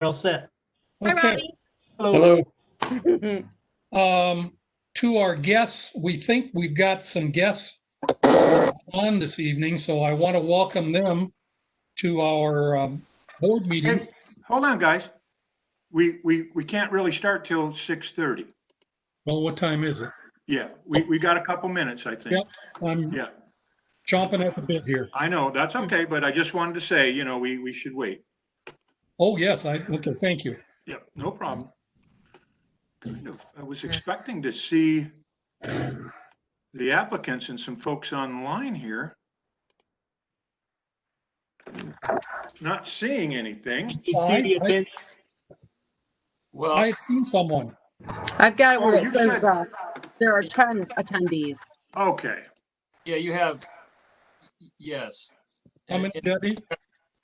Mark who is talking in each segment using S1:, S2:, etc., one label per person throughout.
S1: We're all set.
S2: Hi,
S3: Okay,
S2: Robbie.
S1: Hello.
S4: Hello.
S3: um, to our guests, we think we've got some guests on this evening, so I want to welcome them to our, um, board meeting.
S5: And, hold on, guys. We, we, we can't really start till 6:30.
S3: Well, what time is it?
S5: Yeah, we, we got a couple minutes, I think.
S3: Yep. I'm
S5: Yeah,
S3: chomping at the bit here.
S5: I know, that's okay, but I just wanted to say, you know, we, we should wait.
S3: Oh, yes, I, okay, thank you.
S5: Yeah, no problem. Kind of, I was expecting to see the applicants and some folks online here. Not seeing anything.
S1: You see the
S3: Hi.
S1: attendance?
S3: I
S6: Well,
S3: had seen someone.
S2: I've got it where
S5: Oh,
S2: it
S5: you
S2: says,
S5: said-
S2: uh, there are 10 attendees.
S5: Okay,
S6: yeah, you have, yes.
S3: How many, Debbie?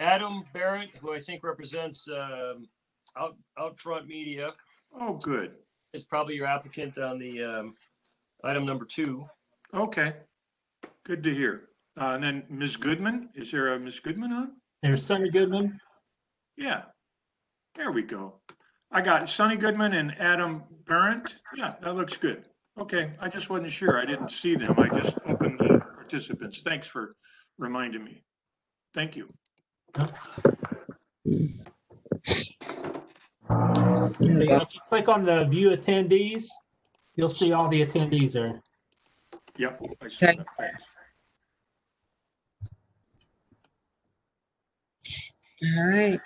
S6: Adam Barrett, who I think represents um, Out Outfront Media,
S5: oh, good,
S6: is probably your applicant on the um, item number two.
S5: okay. Good to hear. Uh, And then Ms. Goodman, is there a Ms. Goodman on?
S1: There's Sonny Goodman.
S5: Yeah, there we go. I got Sonny Goodman and Adam Barrett. Yeah, that looks good. Okay, I just wasn't sure. I didn't see them. I just opened the participants. Thanks for reminding me. Thank you.
S1: If you click on the view attendees, you'll see all the attendees there.
S5: Yep. I see
S2: Okay.
S5: that. Thanks.
S2: All right.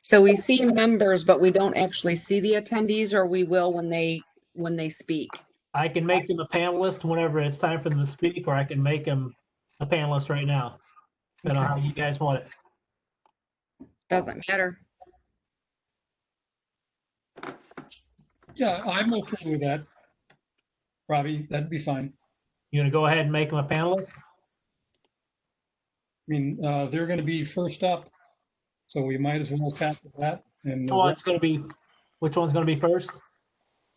S2: So we see members, but we don't actually see the attendees, or we will when they, when they speak.
S1: I can make them a panelist whenever it's time for them to speak, or I can make them a panelist right now. Depending on how you guys want it.
S2: Doesn't matter.
S3: Yeah, I'm okay with that. Robbie, that'd be fine.
S1: You gonna go ahead and make them a panelist?
S3: I mean, uh, they're gonna be first up, so we might as well tackle that and.
S1: Which one's gonna be, which one's gonna be first?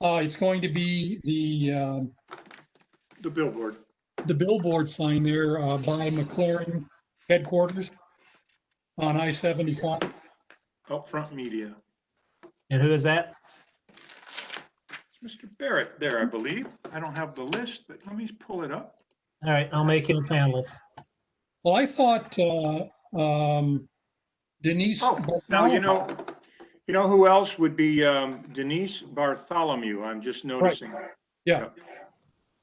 S3: Uh, it's going to be the, um,
S5: The billboard.
S3: the billboard sign there uh, by McLaren headquarters on I-75.
S5: Upfront Media.
S1: And who is that?
S5: It's Mr. Barrett there, I believe. I don't have the list, but let me pull it up.
S1: All right, I'll make him a panelist.
S3: Well, I thought uh, um, Denise.
S5: Oh, now,
S3: Bartholomew-
S5: you know, you know who else would be um, Denise Bartholomew. I'm just noticing.
S3: Yeah.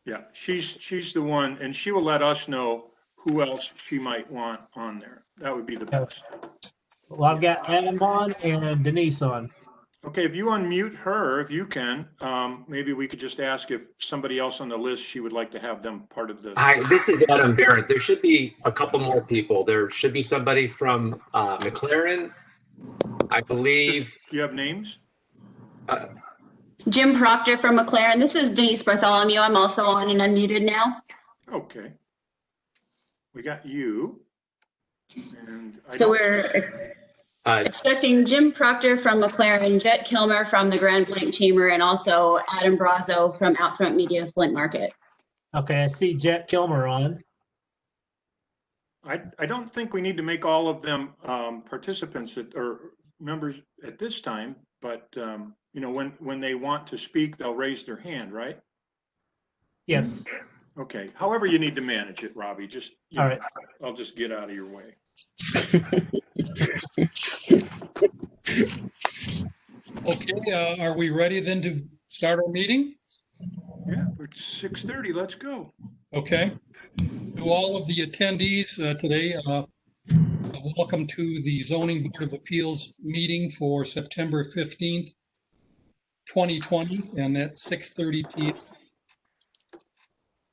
S5: Yeah, she's, she's the one, and she will let us know who else she might want on there. That would be the best.
S1: Well, I've got Adam on and Denise on.
S5: Okay, if you unmute her, if you can, um, maybe we could just ask if somebody else on the list, she would like to have them part of the.
S7: Hi, this is Adam Barrett. There should be a couple more people. There should be somebody from uh, McLaren. I believe,
S5: Do you have names?
S8: Jim Proctor from McLaren. This is Denise Bartholomew. I'm also on and unmuted now.
S5: Okay. We got you. And I
S8: So
S5: don't-
S8: we're
S7: uh,
S8: expecting Jim Proctor from McLaren, Jet Kilmer from the Grand Blank Chamber, and also Adam Brazo from Outfront Media Flint Market.
S1: Okay, I see Jack Kilmer on.
S5: I, I don't think we need to make all of them um, participants at- or members at this time, but, um, you know, when, when they want to speak, they'll raise their hand, right?
S1: Yes,
S5: Okay, however you need to manage it, Robbie, just, you
S1: All
S5: know,
S1: right.
S5: I'll just get out of your way.
S3: Okay, uh, are we ready then to start our meeting?
S5: Yeah, it's 6:30, let's go.
S3: Okay. To all of the attendees uh, today, uh, welcome to the Zoning Board of Appeals meeting for September 15th, 2020, and at 6:30 PM.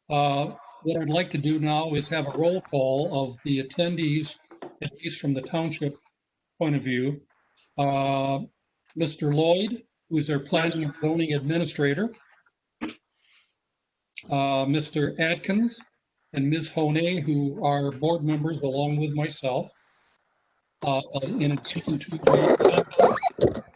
S3: Uh, What I'd like to do now is have a roll call of the attendees, at least from the township point of view. Uh, Mr. Lloyd, who is our planning and zoning administrator uh, Mr. Atkins and Ms. Honay, who are board members along with myself. Uh, In addition to